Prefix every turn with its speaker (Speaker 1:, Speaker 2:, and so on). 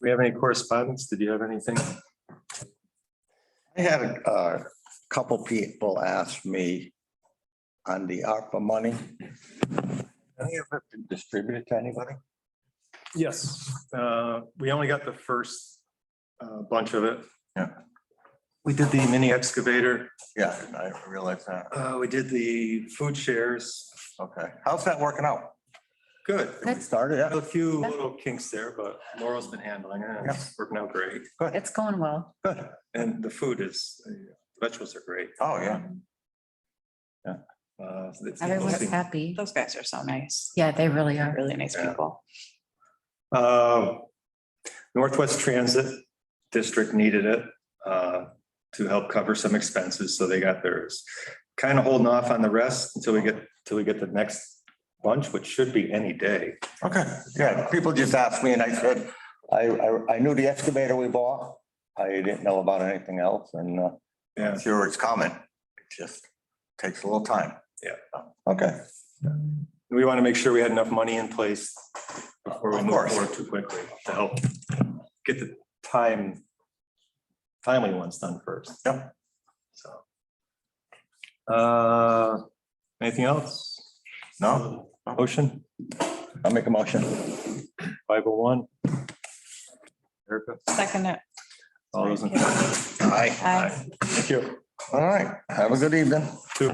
Speaker 1: we have any correspondence? Did you have anything?
Speaker 2: I had a uh, couple people ask me on the ARPA money. Any of it been distributed to anybody?
Speaker 1: Yes, uh, we only got the first uh, bunch of it.
Speaker 2: Yeah.
Speaker 1: We did the mini excavator,
Speaker 2: Yeah, I realize that.
Speaker 1: uh, we did the food shares.
Speaker 2: Okay. How's that working out?
Speaker 1: Good.
Speaker 2: We started
Speaker 1: Had A
Speaker 2: it?
Speaker 1: few little kinks there, but Laurel's been handling it. and It's working out great.
Speaker 3: It's going well.
Speaker 2: Good.
Speaker 1: And the food is, uh, vegetables are great.
Speaker 2: Oh, yeah.
Speaker 1: Uh, it's-
Speaker 3: Everyone's happy.
Speaker 4: Those guys are so nice.
Speaker 3: Yeah, they really
Speaker 4: They're
Speaker 3: are.
Speaker 4: really nice
Speaker 1: Yeah.
Speaker 4: people.
Speaker 1: Uh, Northwest Transit District needed it uh, to help cover some expenses, so they got theirs. Kind of holding off on the rest until we get, till we get the next bunch, which should be any day.
Speaker 2: Okay. Yeah, people just asked me and I said, I, I, I knew the excavator we bought. I didn't know about anything else and uh,
Speaker 1: Yeah.
Speaker 2: I'm sure it's coming. It just takes a little time.
Speaker 1: Yeah.
Speaker 2: Okay.
Speaker 1: We want to make sure we had enough money in place before we
Speaker 2: Of
Speaker 1: move
Speaker 2: course.
Speaker 1: forward too quickly to help get the time, timely ones done first.
Speaker 2: Yep.
Speaker 1: So. Uh, anything else?
Speaker 2: No,
Speaker 1: Motion?
Speaker 2: I'll make a motion.
Speaker 1: Five oh one. Erica?
Speaker 4: Second
Speaker 1: uh,
Speaker 4: it.
Speaker 1: All those in favor?
Speaker 2: Aye.
Speaker 4: Aye.
Speaker 1: Thank you.
Speaker 2: All right. Have a good evening.
Speaker 1: Two.